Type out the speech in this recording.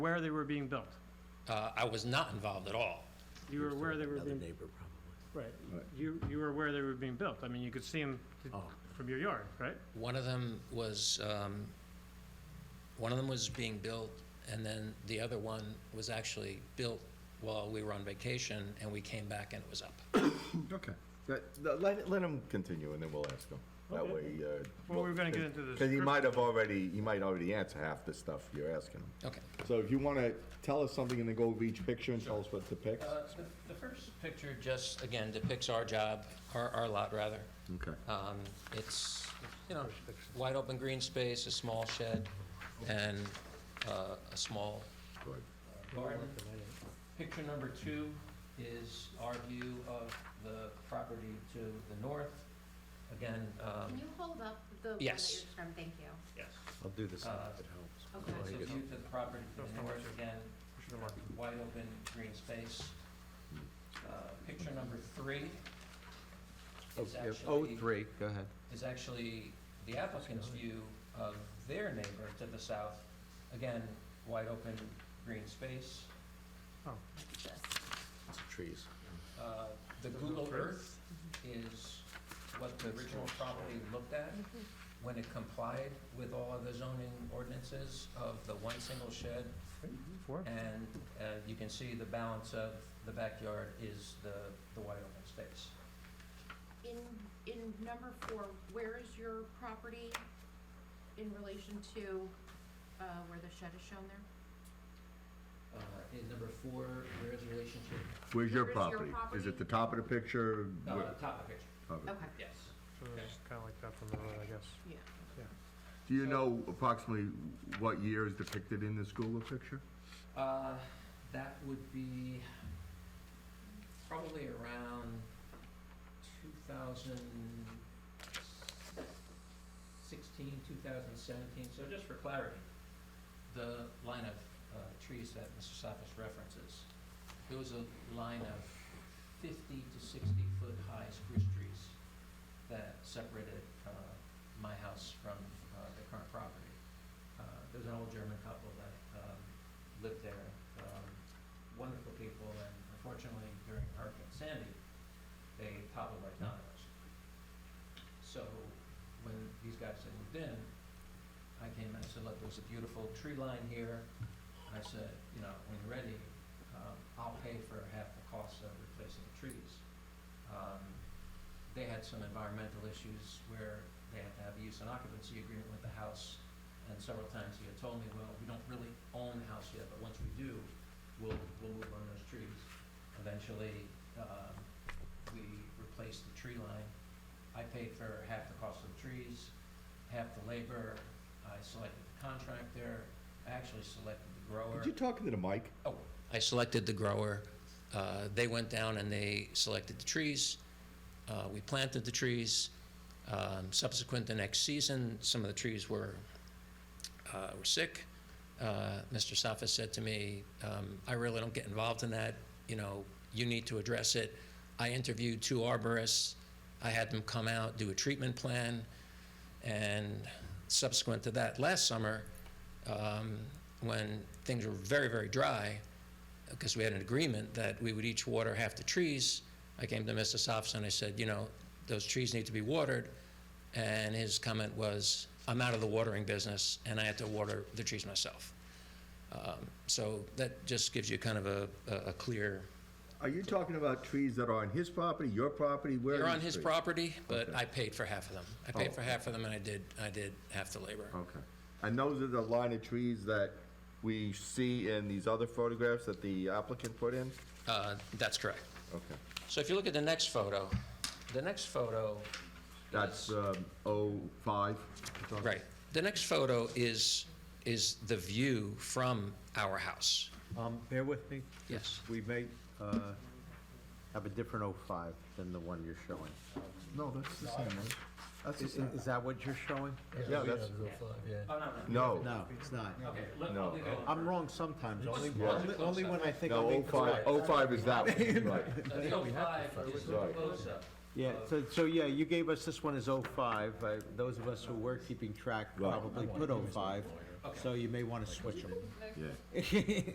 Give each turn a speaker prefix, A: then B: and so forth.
A: aware they were being built.
B: Uh, I was not involved at all.
A: You were aware they were
C: Another
A: being,
C: neighbor probably.
A: right, you, you were aware they were being built. I mean, you could see them
C: Oh.
A: from your yard, right?
B: One of them was, um, one of them was being built, and then the other one was actually built while we were on vacation, and we came back and it was up.
D: Okay. That- th- Let, let him continue and then we'll ask him. That
A: Okay.
D: way, uh.
A: Well, we're gonna get into this
D: Cause he
A: script.
D: might have already, he might already answer half the stuff you're asking him.
B: Okay.
D: So if you wanna tell us something and then go over each picture and tell us what depicts.
B: Uh, The first picture just, again, depicts our job, our, our lot, rather.
D: Okay.
B: Um, It's, you know, wide open green space, a small shed, and uh, a small
D: Good.
B: garden. Picture number two is our view of the property to the north. Again, um,
E: Can you hold up the one that you're
B: Yes.
E: from, thank you.
B: yes.
C: I'll do this
B: Uh,
C: if it helps.
E: okay.
B: It's a view to the property to the north, again,
A: Should have marked.
B: wide open green space. Uh, Picture number three is
C: Oh, yeah.
B: actually.
C: Oh, three, go ahead.
B: is actually the applicant's view of their neighbor to the south. Again, wide open green space.
C: It's trees.
B: Uh, The Google Earth is what the original property looked at when it complied with all of the zoning ordinances of the one single shed.
A: Four?
B: And uh, you can see the balance of the backyard is the, the wide open space.
E: In, in number four, where is your property in relation to, uh, where the shed is shown there?
B: Uh, In number four, there is a relationship,
D: Where's your
E: Where's your
D: property? Is it the top of the picture?
B: uh,
D: Where-
B: top of picture,
D: of it?
E: Okay,
B: yes.
A: So it's kinda like that from the road, I guess.
E: yeah.
D: Do you know approximately what year is depicted in this Google picture?
B: Uh, that would be probably around two thousand sixteen, two thousand seventeen, so just for clarity, the line of, uh, trees that Mr. Sophis references, there was a line of fifty to sixty foot high spruce trees that separated, uh, my house from, uh, the current property. Uh, there was an old German couple that, um, lived there, um, wonderful people, and unfortunately during Hurricane Sandy, they toppled right down on us. So when these guys had moved in, I came and I said, look, there's a beautiful tree line here. I said, you know, when you're ready, um, I'll pay for half the cost of replacing the trees. Um, They had some environmental issues where they had to have a use and occupancy agreement with the house and several times he had told me, well, we don't really own the house yet, but once we do, we'll, we'll move on those trees. Eventually, um, we replaced the tree line. I paid for half the cost of the trees, half the labor. I selected the contractor. I actually selected the grower.
D: Did you talk into the mic?
B: Oh, I selected the grower. Uh, They went down and they selected the trees. Uh, We planted the trees. Um, Subsequent the next season, some of the trees were, uh, were sick. Uh, Mr. Saffa said to me, um, I really don't get involved in that, you know, you need to address it. I interviewed two arborists. I had them come out, do a treatment plan. And subsequent to that, last summer, um, when things were very, very dry, because we had an agreement that we would each water half the trees, I came to Mr. Sops and I said, you know, those trees need to be watered. And his comment was, I'm out of the watering business, and I had to water the trees myself. Um, So that just gives you kind of a, a- a clear,
D: Are you talking about trees that are on his property, your property? Where are
B: they're on
D: these
B: his
D: trees?
B: property, but
D: Okay.
B: I paid for half of them. I paid
D: Oh.
B: for half of them, and I did, I did half the labor.
D: Okay. And those are the line of trees that we see in these other photographs that the applicant put in?
B: Uh, That's correct.
D: Okay.
B: So if you look at the next photo, the next photo
D: That's
B: is-
D: um, 05?
B: Right. The next photo is, is the view from our house.
C: Um, bear with me.
B: Yes.
C: We may, uh, have a different oh five than the one you're showing.
D: No, that's the same one. That's the
C: Is,
D: same.
C: is that what you're showing?
D: Yeah, that's,
B: Oh, no,
D: no,
C: No, it's not.
B: Okay, let,
D: No.
B: I'll leave it alone.
C: I'm wrong sometimes, only,
B: Yeah.
C: only- only when I think I'll be
D: no,
C: correct.
D: 05, 05 is that one, right.
B: So the 05 is the
D: Right.
B: close-up.
C: Yeah, so, so, yeah, you gave us, this one is oh five, uh, those of us who were keeping track
D: Right.
C: probably put oh five.
B: Okay.
C: So you may wanna switch them.
D: yeah.